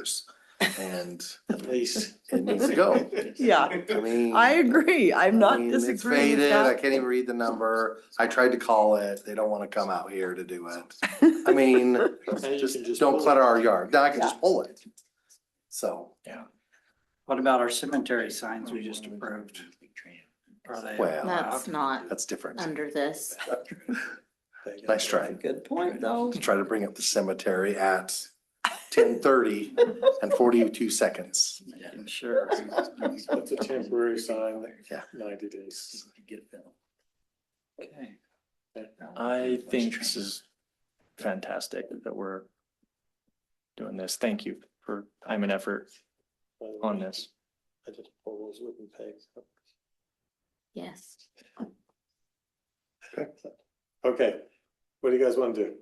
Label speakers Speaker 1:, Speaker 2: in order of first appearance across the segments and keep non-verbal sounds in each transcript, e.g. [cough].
Speaker 1: years. And at least it needs to [laughs] go.
Speaker 2: Yeah, [laughs]
Speaker 1: I mean.
Speaker 2: I agree. I'm
Speaker 1: I
Speaker 2: not
Speaker 1: mean, it's
Speaker 2: disagreeing with
Speaker 1: faded, I
Speaker 2: that.
Speaker 1: can't even read the number. I tried to call it. They don't wanna come out here to do it.
Speaker 2: [laughs]
Speaker 1: I mean, just don't clutter our yard. Now I can just pull it. So,
Speaker 3: What about our cemetery signs we just approved? Are they?
Speaker 1: Well,
Speaker 4: That's not
Speaker 1: that's different.
Speaker 4: under this.
Speaker 1: Nice try.
Speaker 2: Good point, though.
Speaker 1: Try to bring up the cemetery
Speaker 2: [laughs]
Speaker 1: at ten thirty and forty-two seconds.
Speaker 3: I'm Sure.
Speaker 5: That's a temporary sign,
Speaker 1: Yeah.
Speaker 5: ninety days.
Speaker 3: Okay.
Speaker 6: I think this is fantastic that we're doing this. Thank you for time and effort on this.
Speaker 5: I just pull those wooden pegs. up.
Speaker 4: Yes.
Speaker 5: Okay, what do you guys want to do?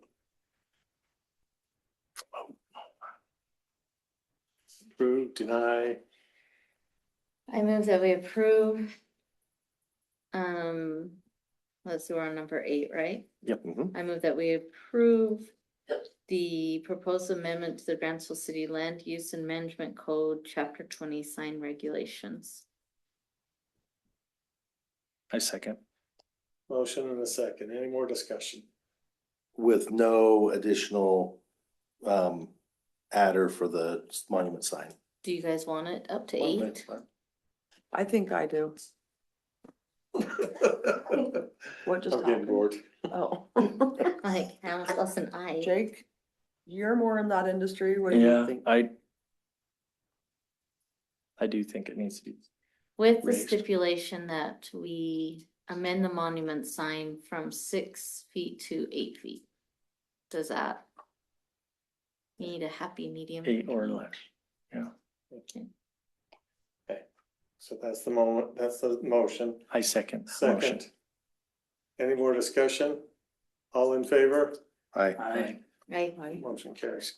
Speaker 5: Approve, deny,
Speaker 4: I move that we approve. Um, let's see, we're on number eight, right?
Speaker 1: Yep. mhm.
Speaker 4: I move that we approve the proposed amendment to the Grantsville City Land Use and Management Code, Chapter twenty, sign regulations.
Speaker 6: I second.
Speaker 5: motion and a second, any more discussion?
Speaker 1: With no additional, um, adder for the monument sign.
Speaker 4: Do you guys want it up to eight?
Speaker 2: I think I do. What just
Speaker 5: I'm getting
Speaker 2: happened?
Speaker 5: bored.
Speaker 2: Oh,
Speaker 4: [laughs] Like, how much less than I?
Speaker 2: Jake, you're more in that industry. What do you
Speaker 6: Yeah,
Speaker 2: think?
Speaker 6: I I do think it needs to be,
Speaker 4: With the
Speaker 6: raised.
Speaker 4: stipulation that we amend the monument sign from six feet to eight feet. Does that? Need a happy medium?
Speaker 6: Eight or less.
Speaker 5: So that's the moment, that's the motion,
Speaker 6: I second. the motion.
Speaker 5: second. Any more discussion? All in favor?
Speaker 1: I,
Speaker 3: I,
Speaker 4: Right,
Speaker 2: Right.
Speaker 5: Motion carries.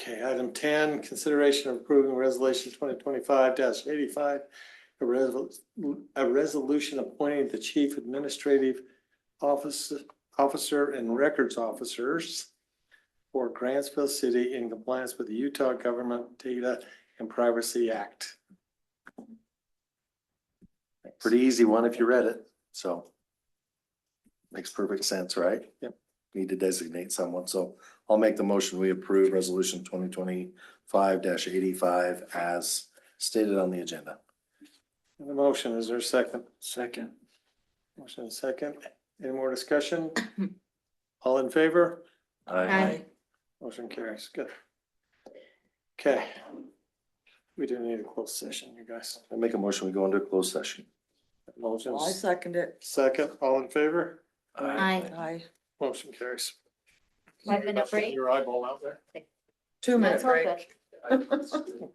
Speaker 5: Okay, item ten, consideration of approving resolution twenty twenty-five eighty-five. A resol- a resolution appointing the chief administrative officer, officer and records officers. For Grantsville City in compliance with the Utah Government Data and Privacy Act.
Speaker 1: pretty easy one if you read it, so. Makes perfect sense, right?
Speaker 5: Yep.
Speaker 1: Need to designate someone, so I'll make the motion, we approve resolution twenty twenty-five eighty-five as stated on the agenda.
Speaker 5: The motion, is there a second?
Speaker 3: second.
Speaker 5: Motion and second. Any more discussion? All in favor?
Speaker 4: Aye.
Speaker 5: Motion carries. Good. Okay. We do need a closed session, you guys.
Speaker 1: I make a motion, we go into a closed session.
Speaker 5: Motion
Speaker 2: Well, I second it.
Speaker 5: second, all in favor?
Speaker 4: Aye.
Speaker 2: Aye.
Speaker 5: Motion carries.
Speaker 4: Five
Speaker 5: Sorry
Speaker 4: minute
Speaker 5: about
Speaker 4: break?
Speaker 5: Your eyeball out there.
Speaker 2: Two minute
Speaker 4: That's all
Speaker 2: break.
Speaker 4: good.